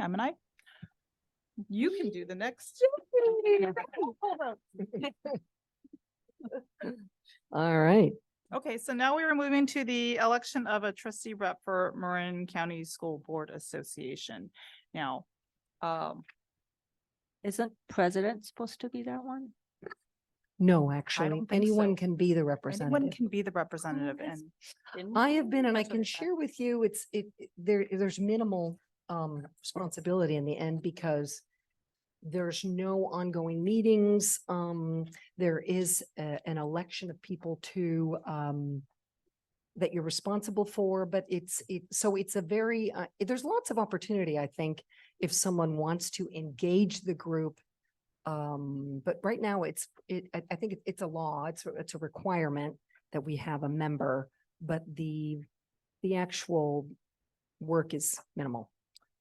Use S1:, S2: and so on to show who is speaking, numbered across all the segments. S1: I'm an I. You can do the next.
S2: All right,
S1: Okay, so now we are moving to the election of a trustee rep for Marin County School Board Association. Now, um,
S3: Isn't president supposed to be that one?
S2: no, actually,
S1: don't think so.
S2: anyone can be the
S1: anyone
S2: representative.
S1: can be the representative
S2: that's-
S1: and
S2: I have been, and I
S3: That's what
S2: can
S3: I thought.
S2: share with you, it's, it, it- there, there's minimal um responsibility in the end because there's no ongoing meetings, um, there is a- an election of people to um that you're responsible for, but it's, it, so it's a very, uh, there's lots of opportunity, I think, if someone wants to engage the group. Um, but right now it's, it, I, I think it- it's a law, it's, a- it's a requirement that we have a member, but the, the actual work is minimal.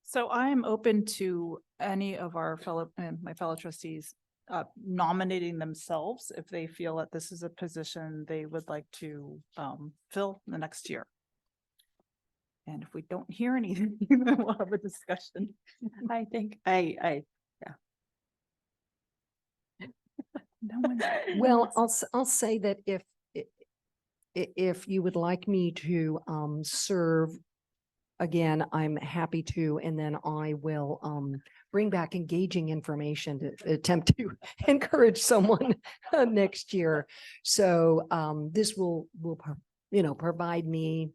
S1: So I am open to any of our fellow, uh, my fellow trustees uh, nominating themselves if they feel that this is a position they would like to um, fill the next year. And if we don't hear anything, then we'll have a discussion.
S3: I think, I, I.
S1: No one's-
S2: Well, I'll, s- I'll say that if, i- i- if you would like me to, um, serve again, I'm happy to, and then I will, um, bring back engaging information to attempt to encourage someone next year. So, um, this will, will, pro- you know, provide me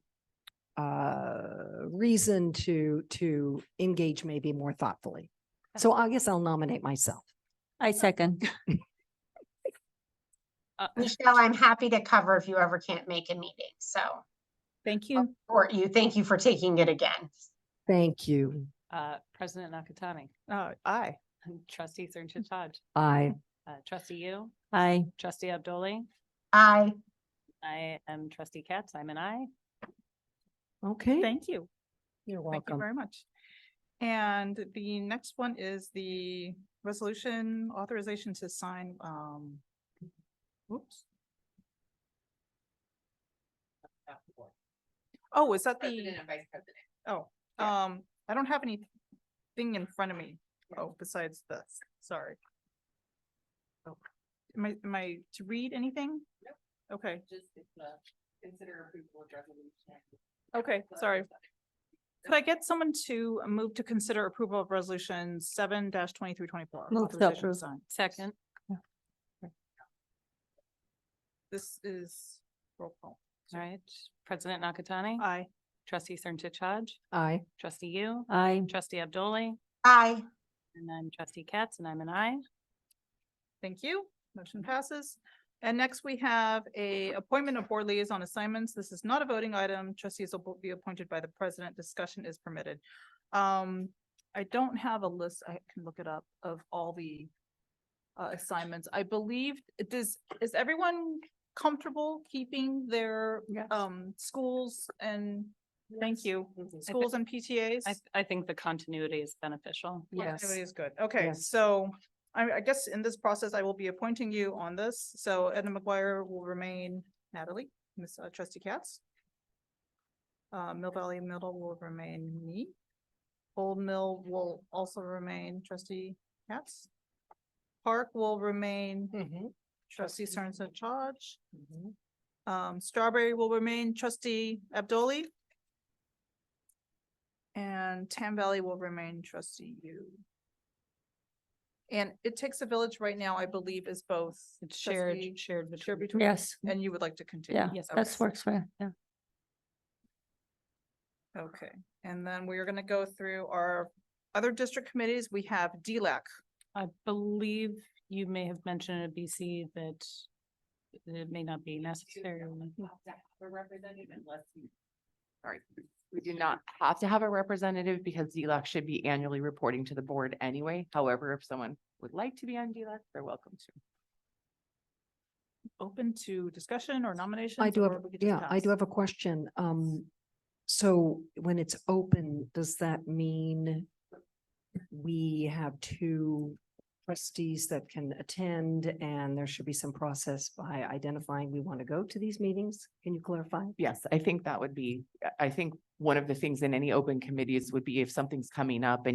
S2: uh, reason to, to engage maybe more thoughtfully. So I guess I'll nominate myself.
S3: I second.
S1: Uh,
S4: Michelle, I'm happy to cover if you ever can't make a meeting, so,
S1: Thank you,
S4: or you, thank you for taking it again.
S2: Thank you.
S5: Uh, President Nakatani,
S1: Uh, aye.
S5: trustee Sernsichaj, Hodge,
S2: I,
S5: uh, trustee you,
S3: I,
S5: trustee Abdoli.
S4: I,
S5: I am trustee Katz, I'm an I.
S2: okay,
S1: Thank you.
S2: you're
S1: Thank you
S2: welcome.
S1: very much. And the next one is the resolution authorization to sign, um, oops. Oh, is that the,
S6: vice president.
S1: oh,
S6: yeah.
S1: um, I don't have anything in front of me. Oh, besides this, sorry. Oh, Am I, am I to read anything?
S6: Nope.
S1: Okay,
S6: Just it's a consider approval of resolution. Uh,
S1: okay, sorry. Could I get someone to move to consider approval of resolution seven dash twenty-three twenty-four?
S3: Move to approve.
S5: Second.
S1: This is roll call.
S5: All right, President Nakatani,
S1: Aye.
S5: trustee Sernsichaj, Hodge,
S2: I,
S5: trustee you,
S3: I,
S5: trustee Abdoli,
S4: I,
S5: and I'm trustee Katz, and I'm an I.
S1: Thank you. Motion passes. And next we have a appointment of board liaison assignments. This is not a voting item. Trustees will be appointed by the president. Discussion is permitted. Um, I don't have a list. I can look it up of all the uh, assignments. I believe, does, is everyone comfortable keeping their
S5: Yes.
S1: um, schools and, thank you, schools and PTAs?
S5: I, I think the continuity is beneficial.
S2: yes.
S1: Continuity is good. Okay,
S2: Yes.
S1: so I, I guess in this process, I will be appointing you on this. So Edna McGuire will remain Natalie, Miss uh, Trustee Katz. Uh, Mill Valley Middle will remain me. Old Mill will also remain Trustee Katz. Park will remain
S2: Mhm,
S1: Trustee Sterns in charge.
S2: mhm.
S1: Um, Strawberry will remain Trustee Abdoli. And Tam Valley will remain Trustee you. And it takes a village right now, I believe, is both.
S5: It's shared,
S1: trustee-
S5: shared
S1: Shared between.
S5: between.
S3: yes,
S1: And you would like to continue?
S3: yeah,
S5: Yes,
S3: that's
S1: Okay.
S3: works for, yeah.
S1: Okay, and then we are gonna go through our other district committees. We have DLAC.
S5: I believe you may have mentioned at BC that it may not be necessary.
S6: A representative unless you. Sorry, we do not have to have a representative because DLAC should be annually reporting to the board anyway. However, if someone would like to be on DLAC, they're welcome to.
S1: Open to discussion or nominations?
S2: I do
S1: or
S2: have,
S1: we could just
S2: yeah, I
S1: pass?
S2: do have a question. Um, so when it's open, does that mean we have two trustees that can attend and there should be some process by identifying we want to go to these meetings? Can you clarify?
S6: Yes, I think that would be, I- I think one of the things in any open committees would be if something's coming up and